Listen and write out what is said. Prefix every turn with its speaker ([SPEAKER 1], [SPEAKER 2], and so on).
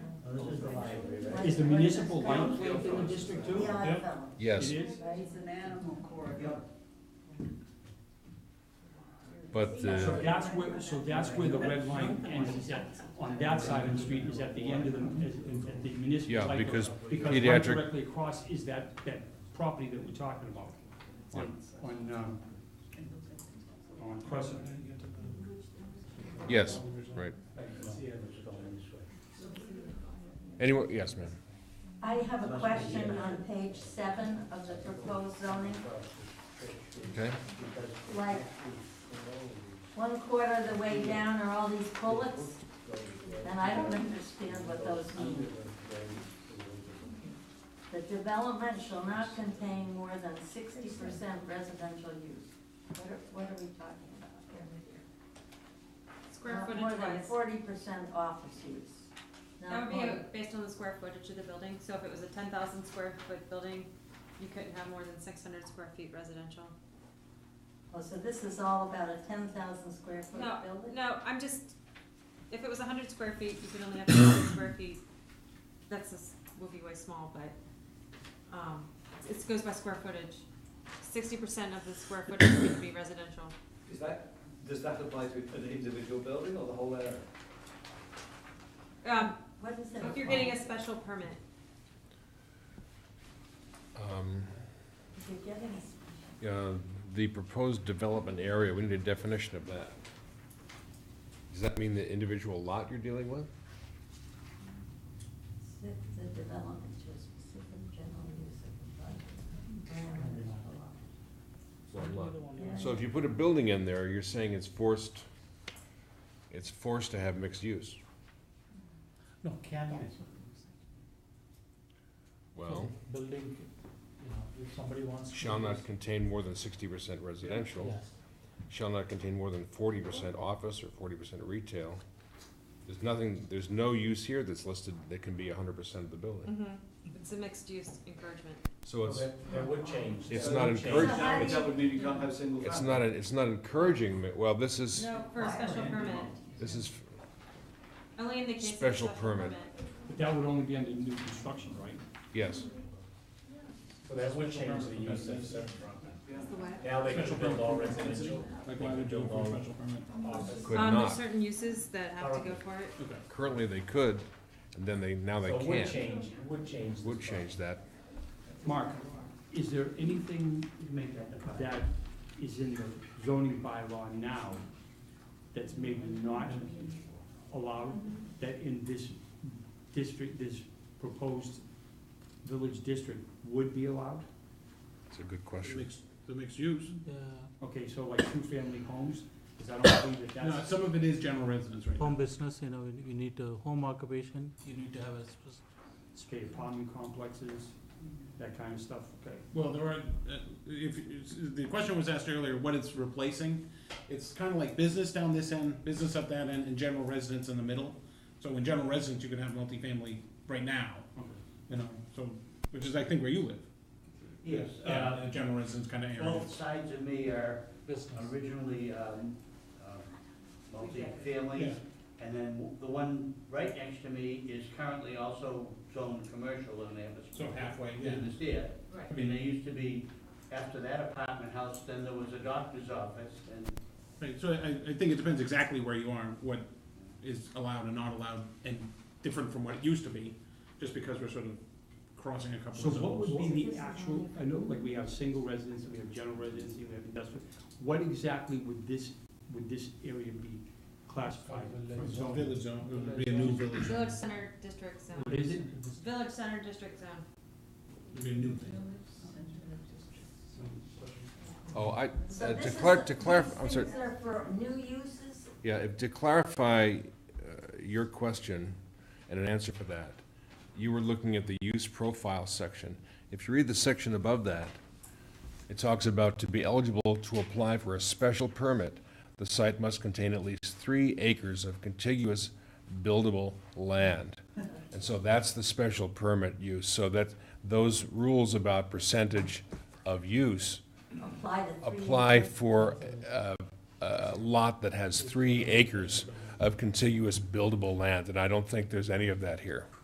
[SPEAKER 1] library, right?
[SPEAKER 2] Is the municipal light plant in the district too?
[SPEAKER 3] Yeah, I
[SPEAKER 2] Yep.
[SPEAKER 3] fell.
[SPEAKER 4] Yes,
[SPEAKER 2] It is?
[SPEAKER 3] He's an animal corridor.
[SPEAKER 4] but, uh,
[SPEAKER 2] So that's where, so that's where the red line ends, is at, on that side of the street, is at the end of the, is- is at the municipal.
[SPEAKER 4] Yeah,
[SPEAKER 2] site.
[SPEAKER 4] because
[SPEAKER 2] Because right
[SPEAKER 4] pediatric-
[SPEAKER 2] directly across is that, that property that we're talking about, on, on, um, on Crescent.
[SPEAKER 4] yes, right.
[SPEAKER 1] I can see it was going this way.
[SPEAKER 4] Anyway, yes, ma'am.
[SPEAKER 3] I have a question on page seven of the proposed zoning,
[SPEAKER 4] Okay,
[SPEAKER 3] like, one quarter of the way down are all these bullets, and I don't understand what those mean. The development shall not contain more than sixty percent residential use. What are, what are we talking about here?
[SPEAKER 5] Square
[SPEAKER 3] Not
[SPEAKER 5] footage
[SPEAKER 3] More than
[SPEAKER 5] wise,
[SPEAKER 3] forty percent office use.
[SPEAKER 5] that
[SPEAKER 3] Not
[SPEAKER 5] would be
[SPEAKER 3] more-
[SPEAKER 5] uh, based on the square footage of the building, so if it was a ten thousand square foot building, you couldn't have more than six hundred square feet residential.
[SPEAKER 3] Oh, so this is all about a ten thousand square foot
[SPEAKER 5] No,
[SPEAKER 3] building?
[SPEAKER 5] no, I'm just, if it was hundred square feet, you could only have hundred square feet, that's a, s- would be way small, but, um, it goes by square footage. Sixty percent of the square footage would be residential.
[SPEAKER 6] Is that, does that apply to an individual building or the whole area?
[SPEAKER 5] Um,
[SPEAKER 3] What is it?
[SPEAKER 5] if you're getting a special permit,
[SPEAKER 4] um,
[SPEAKER 3] If you're getting a special-
[SPEAKER 4] uh, the proposed development area, we need a definition of that. Does that mean the individual lot you're dealing with?
[SPEAKER 3] If the development to a specific general use of the
[SPEAKER 4] Uh,
[SPEAKER 3] project.
[SPEAKER 4] One lot.
[SPEAKER 3] Yeah.
[SPEAKER 4] So if you put a building in there, you're saying it's forced, it's forced to have mixed use.
[SPEAKER 7] No, can
[SPEAKER 3] Yeah.
[SPEAKER 7] be.
[SPEAKER 4] Well,
[SPEAKER 7] Building, you know, if somebody wants. to
[SPEAKER 4] shall
[SPEAKER 7] use-
[SPEAKER 4] not contain more than sixty percent residential,
[SPEAKER 7] Yes,
[SPEAKER 4] shall not contain more than forty percent office or forty percent retail. There's nothing, there's no use here that's listed that can be hundred percent of the building.
[SPEAKER 5] mhm, it's a mixed use encouragement.
[SPEAKER 4] So it's,
[SPEAKER 1] That- That would change.
[SPEAKER 4] It's
[SPEAKER 1] That
[SPEAKER 4] not
[SPEAKER 1] would change.
[SPEAKER 4] encouraged.
[SPEAKER 3] How do you-
[SPEAKER 6] That would mean you can't have single family.
[SPEAKER 4] it's not, a- it's not encouraging, ma- well, this is,
[SPEAKER 5] No, for a special permit,
[SPEAKER 4] this is,
[SPEAKER 5] only in the case of a
[SPEAKER 4] Special
[SPEAKER 5] special
[SPEAKER 4] permit.
[SPEAKER 5] permit.
[SPEAKER 2] But that would only be under new construction, right?
[SPEAKER 4] yes,
[SPEAKER 1] So that would change the use of certain property.
[SPEAKER 6] Yeah.
[SPEAKER 5] Is the what?
[SPEAKER 1] Now they can build all residential.
[SPEAKER 2] Like why would you do a special permit?
[SPEAKER 1] office.
[SPEAKER 4] could
[SPEAKER 5] Um, there's
[SPEAKER 4] not.
[SPEAKER 5] certain uses that have to go for it.
[SPEAKER 2] Okay.
[SPEAKER 4] Currently, they could, and then they, now they
[SPEAKER 1] So it would
[SPEAKER 4] can't.
[SPEAKER 1] change, it would change. the
[SPEAKER 4] Would change that.
[SPEAKER 2] Mark, is there anything that is in the zoning bylaw now that's maybe not allowed, that in this district, this proposed village district would be allowed?
[SPEAKER 4] It's a good question.
[SPEAKER 8] Mixed, the mixed use.
[SPEAKER 7] yeah,
[SPEAKER 2] Okay, so like two-family homes, because I don't believe that
[SPEAKER 8] No,
[SPEAKER 2] that's,
[SPEAKER 8] some of it is general residence right
[SPEAKER 7] home
[SPEAKER 8] now.
[SPEAKER 7] business, you know, you you need a home occupation, you need to have a spec-
[SPEAKER 2] okay, apartment complexes, that kind of stuff, okay.
[SPEAKER 8] Well, there are, uh, if, if- the question was asked earlier, what it's replacing. It's kind of like business down this end, business up that end, and general residence in the middle. So in general residence, you can have multifamily right now, you know, so, which is, I think, where you live.
[SPEAKER 9] Yes,
[SPEAKER 8] Yeah,
[SPEAKER 9] uh,
[SPEAKER 8] the general residence kind of area.
[SPEAKER 9] both sides of me are
[SPEAKER 7] business.
[SPEAKER 9] originally um, um, multi-families, and then w- the one right next to me is currently also zoned commercial, and they have a
[SPEAKER 8] So
[SPEAKER 9] small
[SPEAKER 8] halfway, yeah.
[SPEAKER 9] business there.
[SPEAKER 5] Right.
[SPEAKER 9] I mean, they used to be, after that apartment house, then there was a doctor's office, and
[SPEAKER 8] Right, so I, I think it depends exactly where you are, what is allowed and not allowed, and different from what it used to be, just because we're sort of crossing a couple of
[SPEAKER 2] So
[SPEAKER 8] zones.
[SPEAKER 2] what would be the actual, I know, like, we have single residency, we have general residency, we have industrial, what exactly would this, would this area be classified for zoning?
[SPEAKER 8] Village zone, it would be a new village zone,
[SPEAKER 5] Village Center District Zone,
[SPEAKER 2] What is it?
[SPEAKER 5] Village Center District Zone.
[SPEAKER 8] it would be a new thing.
[SPEAKER 4] Oh, I,
[SPEAKER 3] So
[SPEAKER 4] Uh, to
[SPEAKER 3] this
[SPEAKER 4] clar-
[SPEAKER 3] is-
[SPEAKER 4] to clarif-
[SPEAKER 3] these
[SPEAKER 4] I'm sorry.
[SPEAKER 3] Things are for new uses?
[SPEAKER 4] Yeah, if- to clarify uh, your question and an answer for that, you were looking at the use profile section. If you read the section above that, it talks about to be eligible to apply for a special permit, the site must contain at least three acres of contiguous buildable land. And so that's the special permit use, so that those rules about percentage of use
[SPEAKER 3] Apply to three.
[SPEAKER 4] apply
[SPEAKER 3] uses?
[SPEAKER 4] for a, a lot that has three acres of contiguous buildable land, and I don't think there's any of that here.